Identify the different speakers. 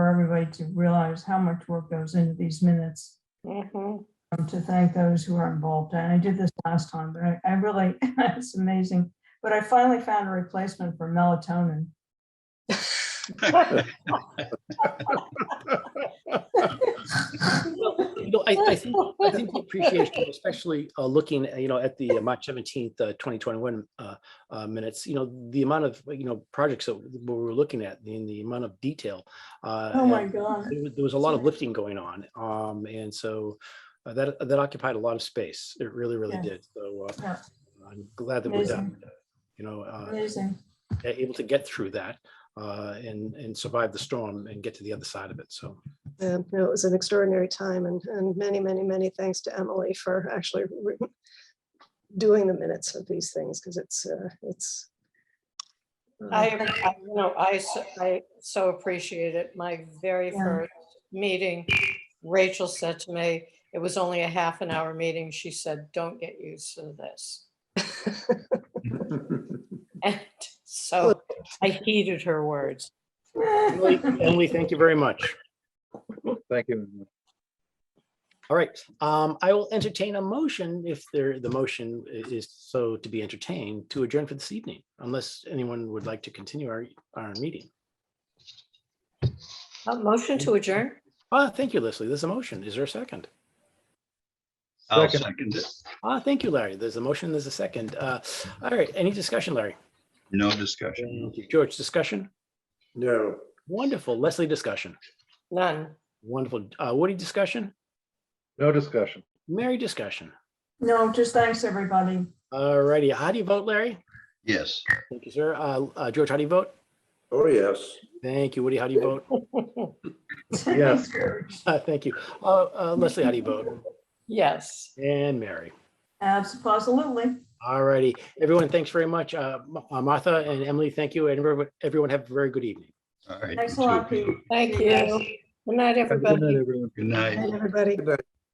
Speaker 1: everybody to realize how much work goes into these minutes.
Speaker 2: Mm-hmm.
Speaker 3: Mhm.
Speaker 1: um, To thank those who are involved. And I did this last time, but I, I really, it's amazing. But I finally found a replacement for melatonin.
Speaker 4: Well, you know, I, I think, I think the appreciation, especially uh, looking, uh, you know, at the uh, March seventeenth, twenty twenty-one uh, minutes, you know, the amount of, you know, projects that we were looking at, in the amount of detail. uh,
Speaker 1: Oh my
Speaker 4: and
Speaker 1: God.
Speaker 4: There was- there was a lot of lifting going on, um, and so uh, that, that occupied a lot of space. It really, really
Speaker 1: Yeah.
Speaker 4: did. So uh,
Speaker 1: Yeah.
Speaker 4: I'm glad that we're done, you know, uh,
Speaker 1: Amazing.
Speaker 4: able to get through that uh, and, and survive the storm and get to the other side of it. So.
Speaker 5: And you know, it was an extraordinary time and, and many, many, many thanks to Emily for actually re- doing the minutes of these things because it's, uh, it's. uh,
Speaker 3: I, I- you know, I, so- I so appreciate it. My very
Speaker 1: Yeah.
Speaker 3: first meeting, Rachel said to me, it was only a half an hour meeting. She said, don't get used to this. And so I heeded her words.
Speaker 4: Emily, Emily, thank you very much.
Speaker 2: Thank you.
Speaker 4: All right, um, I will entertain a motion if there, the motion i- is so to be entertained to adjourn for this evening, unless anyone would like to continue our, our meeting.
Speaker 3: Uh, Motion to adjourn?
Speaker 4: Ah, thank you, Leslie. There's a motion. Is there a second?
Speaker 6: I'll
Speaker 2: Second.
Speaker 6: second it.
Speaker 4: Ah, thank you, Larry. There's a motion, there's a second. Uh, all right, any discussion, Larry?
Speaker 6: No discussion.
Speaker 4: George, discussion?
Speaker 7: No.
Speaker 4: Wonderful. Leslie, discussion?
Speaker 3: None.
Speaker 4: Wonderful. Uh, Woody, discussion?
Speaker 2: No discussion.
Speaker 4: Mary, discussion?
Speaker 1: No, just thanks, everybody.
Speaker 4: All righty, how do you vote, Larry?
Speaker 6: Yes.
Speaker 4: Thank you, sir. Uh, uh, George, how do you vote?
Speaker 7: Oh, yes.
Speaker 4: Thank you. Woody, how do you vote?
Speaker 2: Yes.
Speaker 4: Uh, Thank you. Uh, uh, Leslie, how do you vote?
Speaker 3: Yes.
Speaker 4: And Mary.
Speaker 1: Absolutely.
Speaker 4: All righty. Everyone, thanks very much. Uh, Ma- uh, Martha and Emily, thank you. And everyone, everyone have a very good evening.
Speaker 6: All right.
Speaker 1: Thanks a
Speaker 6: you
Speaker 1: lot,
Speaker 6: too.
Speaker 1: Pete.
Speaker 3: Thank you.
Speaker 1: Yes.
Speaker 3: Good night,
Speaker 2: Have a Good
Speaker 3: everybody.
Speaker 2: night, everyone.
Speaker 6: Good night.
Speaker 5: Everybody.
Speaker 7: Good night.